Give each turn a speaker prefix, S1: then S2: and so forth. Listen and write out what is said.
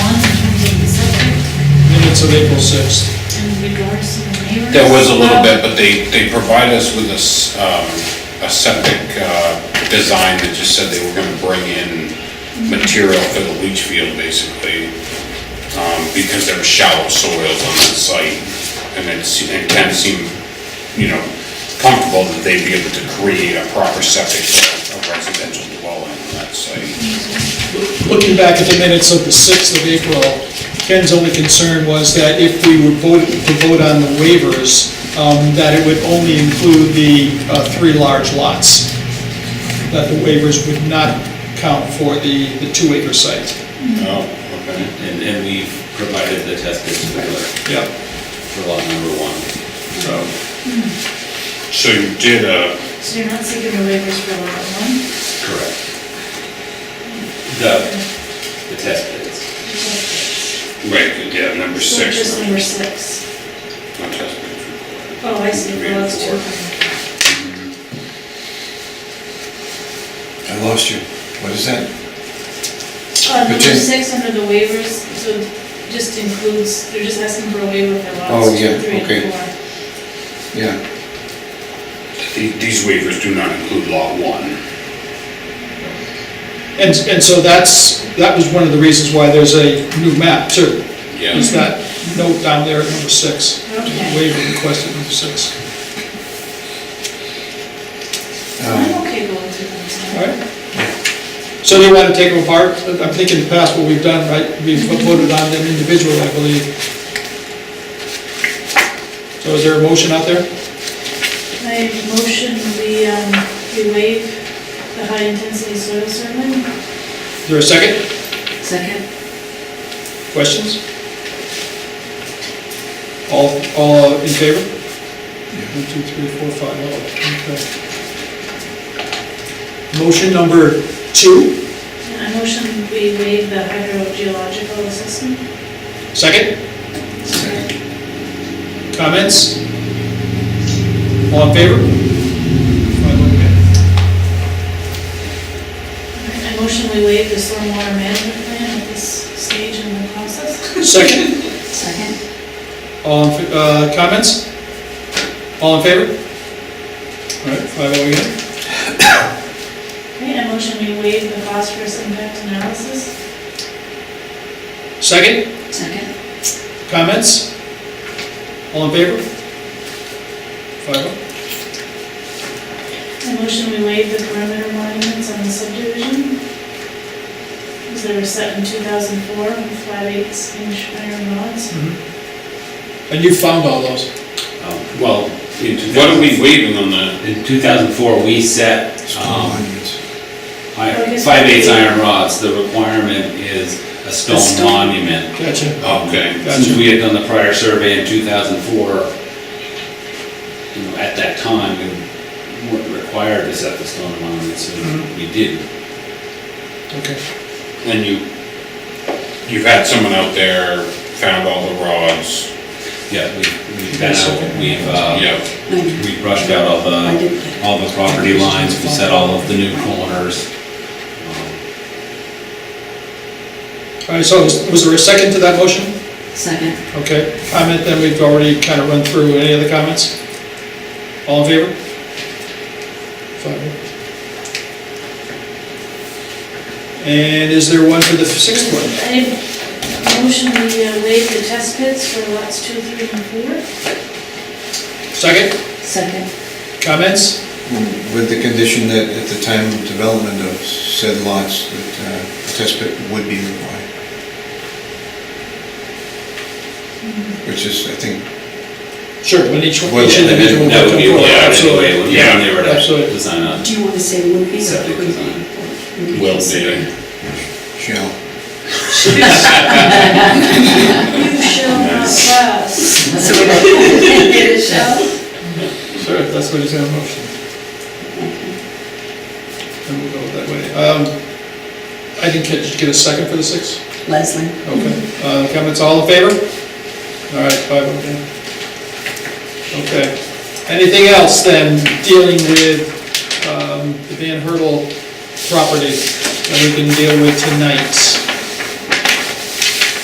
S1: of April 6th.
S2: in regards to the neighbors? um,
S3: There was a little bit, but they, they provide us with a, s- um, a septic, uh, design that just said they were gonna bring in material for the leach field, basically, um, because there were shallow soils on that site, and it's, it kind of seemed, you know, comfortable that they'd be able to create a proper septic for a residential dwelling on that site.
S1: Looking back at the minutes of the 6th of April, Ken's only concern was that if we would vote, to vote on the waivers, um, that it would only include the uh, three large lots, that the waivers would not count for the the two-acre site.
S3: Oh, okay.
S4: And, and we've provided the test bits for, the-
S1: Yeah.
S4: for lot number one.
S1: So,
S3: So you did a,
S2: So you're not seeking the waivers for lot one?
S4: Correct.
S3: Uh,
S4: The, the test bits.
S3: right, yeah, number
S2: So
S3: six.
S2: just number six.
S3: Not test pits.
S2: Oh, I see,
S3: Three
S2: well,
S3: and
S2: that's two. Uh,
S5: I lost you. What is that?
S2: Uh, number
S5: Between-
S2: six under the waivers, so just includes, they're just asking for a waiver for
S5: Oh,
S2: lots
S5: yeah,
S2: two, three,
S5: okay.
S2: and four.
S5: Yeah.
S3: The- These waivers do not include Lot 1.
S1: And, and so that's, that was one of the reasons why there's a new map too. Is that note down there at number six,
S2: Okay.
S1: waiver request at number six.
S3: Um,
S2: I'm okay going through them. so.
S1: All right. So do you want to take them apart? I'm thinking in the past what we've done, right, we've voted on them individually, I believe. So is there a motion out there?
S2: I motion we, um, we waive the high intensity soil survey.
S1: Is there a second?
S6: Second?
S1: Questions? All, all in favor? One, two, three, four, five, oh, okay. Motion number two,
S2: I motion we waive the hydrogeological assessment.
S1: second, comments? All in favor? Five, okay.
S2: I motion we waive the stormwater management plan at this stage in the process.
S1: Second,
S6: Second?
S1: all, in fa- uh, comments? All in favor? All right, five oh again.
S2: Okay, I motion we waive the phosphorus impact analysis.
S1: Second,
S6: Second?
S1: comments? All in favor? Five oh.
S2: I motion we waive the perimeter monuments on the subdivision. Because they were set in 2004 with flat eights inch iron rods.
S1: And you found all those?
S4: Um, Well, in two
S3: What are
S4: thousand,
S3: we waiving on the,
S4: in two thousand four, we set, um,
S5: Monuments.
S2: Oh, yes.
S4: five eighths iron rods. The requirement is a stone
S6: stone.
S4: monument.
S1: Gotcha.
S4: Um,
S3: Okay,
S4: Since we had done the prior survey in 2004, you know, at that time, we weren't required to set the stone monument, so we did.
S1: Okay.
S3: and you, you've had someone out there, found all the rods,
S4: Yeah, we- we've been out, we've, uh,
S3: yeah,
S6: I
S4: we brushed out all
S6: I
S4: the,
S6: did.
S4: all the property lines, we set all of the new corners. Um,
S1: All right, so was was there a second to that motion?
S6: Second?
S1: Okay, comment, then we've already kind of run through. Any other comments? All in favor? Five. oh. And is there one for the sixth one?
S2: I motion we uh, waive the test pits for lots two, three, and four.
S1: Second,
S6: Second?
S1: comments?
S5: With the condition that at the time of development of said lots, that uh, a test pit would be required. Which is, I think,
S1: Sure, when each,
S5: Well,
S1: each individual.
S4: That would be
S1: will come forward,
S4: allowed
S1: absolutely.
S4: anyway, when they-
S3: Yeah,
S4: when they were to
S1: absolutely.
S4: design a
S6: Do you want to say would be or
S4: Septic
S6: could
S4: design.
S6: be?
S3: will be.
S5: shall.
S2: You shall not pass.
S6: So we It is shall.
S1: Sure, if that's what is in the motion. Then we'll go that way. Um, I didn't catch, did you get a second for the six?
S6: Leslie?
S1: Okay, uh, comments, all in favor? All right, five, okay. Okay, anything else then dealing with, um, the Van Hertle property that we can deal with tonight?